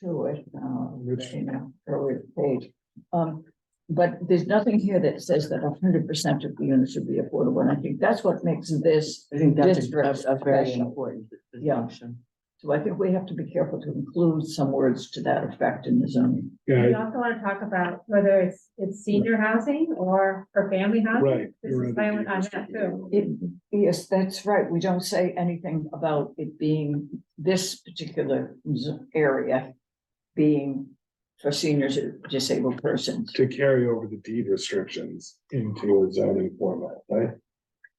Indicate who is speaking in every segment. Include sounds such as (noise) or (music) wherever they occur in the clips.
Speaker 1: to it, uh, you know, earlier page. Um, but there's nothing here that says that hundred percent of the units should be affordable, and I think that's what makes this.
Speaker 2: I think that's a-
Speaker 1: District
Speaker 2: a, a very
Speaker 1: special.
Speaker 2: important
Speaker 1: Yeah.
Speaker 2: distinction.
Speaker 1: So I think we have to be careful to include some words to that effect in the zoning.
Speaker 3: Yeah,
Speaker 4: We also want to talk about whether it's, it's senior housing or, or family housing.
Speaker 3: right.
Speaker 4: This
Speaker 3: you're
Speaker 4: is
Speaker 3: right.
Speaker 4: silent on that too.
Speaker 1: It, yes, that's right. We don't say anything about it being this particular z- area being for seniors or disabled persons.
Speaker 3: To carry over the deed restrictions into a zoning format, right?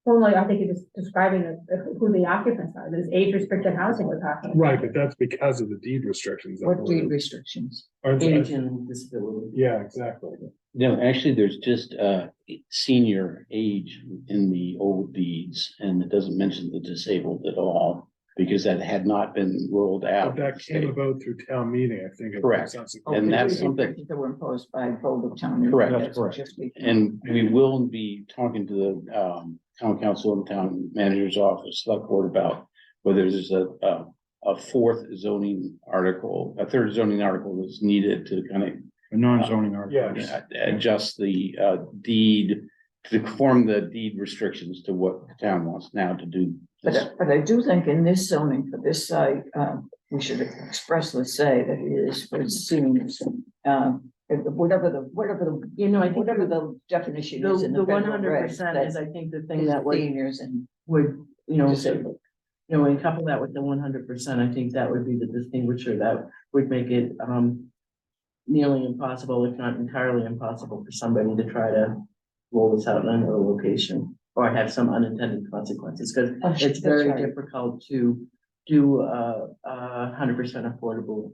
Speaker 4: Well, like, I think you're just describing the- who the occupants are, this age restricted housing we're talking. about.
Speaker 3: Right, but that's because of the deed restrictions. that
Speaker 1: What
Speaker 3: were-
Speaker 1: deed restrictions?
Speaker 3: aren't they?
Speaker 2: Age and disability.
Speaker 3: Yeah, exactly.
Speaker 5: No, actually, there's just uh senior age in the old deeds, and it doesn't mention the disabled at all. Because that had not been rolled
Speaker 3: But
Speaker 5: out.
Speaker 3: that came about through town meeting, I think. it was
Speaker 5: Correct.
Speaker 3: subsequent.
Speaker 5: And
Speaker 1: Oh,
Speaker 5: that's
Speaker 1: the deed
Speaker 5: something-
Speaker 1: restrictions That were imposed by Boulder Town. Meeting.
Speaker 5: Correct,
Speaker 1: That's
Speaker 5: correct.
Speaker 1: just the-
Speaker 5: And we will be talking to the um town council and town manager's office, select board about. Whether there's a a a fourth zoning article, a third zoning article that's needed to kind of
Speaker 6: A non-zoning article.
Speaker 3: Yes.
Speaker 5: Yeah, adjust the uh deed, to conform the deed restrictions to what the town wants now to do.
Speaker 1: But,
Speaker 5: this.
Speaker 1: I- but I do think in this zoning for this site, um, we should expressly say that it is for seniors. Um, and whatever the, whatever the,
Speaker 2: You know, I think
Speaker 1: whatever
Speaker 2: the,
Speaker 1: the definition is in
Speaker 2: the
Speaker 1: the
Speaker 2: one
Speaker 1: federal
Speaker 2: hundred
Speaker 1: regs.
Speaker 2: percent
Speaker 1: that
Speaker 2: is, I think, the thing
Speaker 1: is
Speaker 2: that would,
Speaker 1: Seniors and
Speaker 2: would, you know, you
Speaker 1: disabled.
Speaker 2: know, when you couple that with the one hundred percent, I think that would be the distinguisher that would make it, um, nearly impossible, if not entirely impossible, for somebody to try to roll this out in another location or have some unintended consequences, because
Speaker 1: Oh, sh- that's
Speaker 2: it's very
Speaker 1: right.
Speaker 2: difficult to do a, a hundred percent affordable,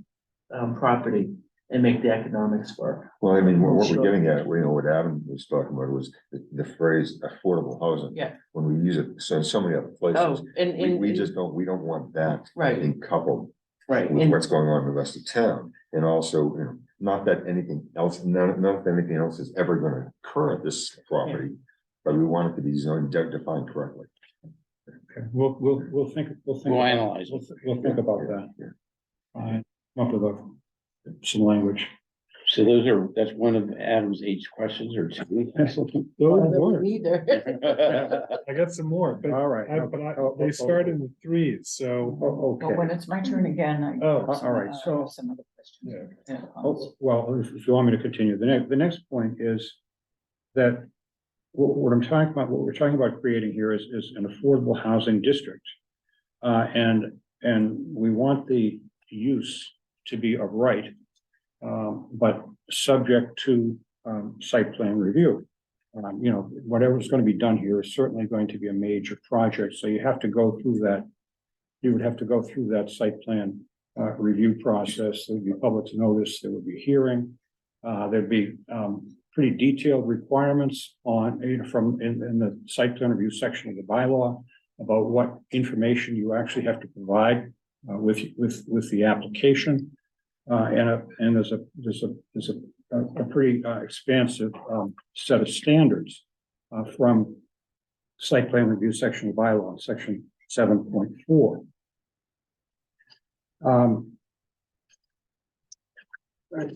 Speaker 2: um, property and make the economics work.
Speaker 7: Well, I mean, what what
Speaker 2: Sure.
Speaker 7: we're getting at, we know what Adam was talking about was the, the phrase affordable housing.
Speaker 2: Yeah.
Speaker 7: When we use it, so in so many other places,
Speaker 2: Oh, and,
Speaker 7: we,
Speaker 2: and.
Speaker 7: we just don't, we don't want that
Speaker 2: Right,
Speaker 7: being coupled
Speaker 2: right.
Speaker 7: with
Speaker 2: And
Speaker 7: what's going on in the rest of town. And also, you know, not that anything else, none, none of anything else is ever gonna occur at this property, but we want it to be zoned, de- defined correctly.
Speaker 6: Okay, We'll, we'll, we'll think, we'll think.
Speaker 5: We'll
Speaker 6: about-
Speaker 5: analyze it.
Speaker 6: We'll, th- we'll think about that.
Speaker 7: Yeah.
Speaker 6: Fine. Come Up with a- some language.
Speaker 5: So those are, that's one of Adam's eight questions or two.
Speaker 3: (laughs)
Speaker 5: (laughs)
Speaker 3: Those were-
Speaker 2: Either.
Speaker 3: I got some more, but
Speaker 6: All right.
Speaker 3: I, but I,
Speaker 5: Oh,
Speaker 3: they start in the threes, so.
Speaker 6: Oh,
Speaker 1: But when
Speaker 6: okay.
Speaker 1: it's my turn again, I.
Speaker 3: Oh,
Speaker 1: have some,
Speaker 6: all right,
Speaker 1: uh,
Speaker 6: so-
Speaker 1: Some other questions.
Speaker 3: Yeah.
Speaker 1: Yeah,
Speaker 6: Oh, Well, if if you want me to continue, the next, the next point is that what, what I'm talking about, what we're talking about creating here is, is an affordable housing district. Uh, and, and we want the use to be of right, um, but subject to, um, site plan review. Um, you know, whatever's gonna be done here is certainly going to be a major project, so you have to go through that. You would have to go through that site plan, uh, review process, there'd be public notice, there would be hearing. Uh, there'd be, um, pretty detailed requirements on, you know, from, in, in the site plan review section of the bylaw about what information you actually have to provide, uh, with, with, with the application. Uh, and a, and there's a, there's a, there's a, a pretty uh, expansive, um, set of standards, uh, from site plan review section of bylaw, section seven point four. Um. right,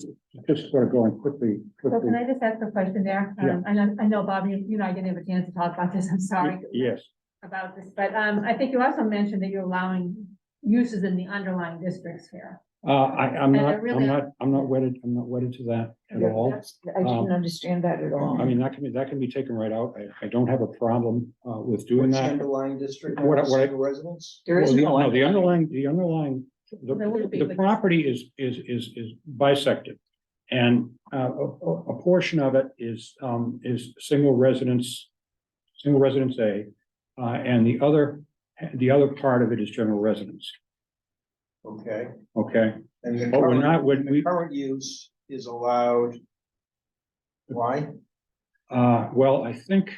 Speaker 6: Just sort of going quickly,
Speaker 4: So
Speaker 6: quickly.
Speaker 4: can I just ask a question there?
Speaker 6: Yeah.
Speaker 4: Um, I know, I know, Bob, you, you and I didn't have a chance to talk about this, I'm sorry
Speaker 6: Yes,
Speaker 4: about this, but, um, I think you also mentioned that you're allowing uses in the underlying districts here.
Speaker 6: uh, I, I'm
Speaker 4: And I
Speaker 6: not,
Speaker 4: really-
Speaker 6: I'm not, I'm not wedded, I'm not wedded to that at
Speaker 1: Yeah,
Speaker 6: all.
Speaker 1: that's- I didn't
Speaker 6: Um,
Speaker 1: understand that at all.
Speaker 6: I mean, that can be, that can be taken right out. I, I don't have a problem, uh, with doing
Speaker 8: Which
Speaker 6: that.
Speaker 8: underlying district,
Speaker 6: What I- what I-
Speaker 8: single residence?
Speaker 1: There is
Speaker 6: Well, the-
Speaker 1: no.
Speaker 6: The underlying, the underlying, the,
Speaker 4: There would be,
Speaker 6: the
Speaker 4: but-
Speaker 6: property is, is, is, is bisected. And, uh, a, a- a portion of it is, um, is single residence, single residence A. Uh, and the other, the other part of it is general residence,
Speaker 8: Okay.
Speaker 6: okay?
Speaker 8: And the
Speaker 6: But Oh, we're
Speaker 8: current,
Speaker 6: not, we,
Speaker 8: the
Speaker 6: we,
Speaker 8: current use is allowed. Why?
Speaker 6: uh, well, I think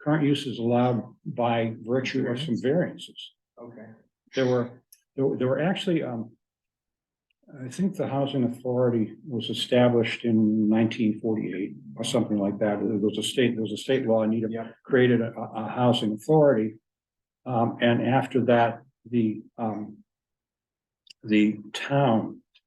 Speaker 6: current use is allowed by virtue of some variances.
Speaker 8: Okay.
Speaker 6: there were, there were- there were actually, um. I think the housing authority was established in nineteen forty-eight or something like that. There was a state, there was a state law, Needham
Speaker 8: Yeah.
Speaker 6: created a, a a housing authority. Um, and after that, the, um. The town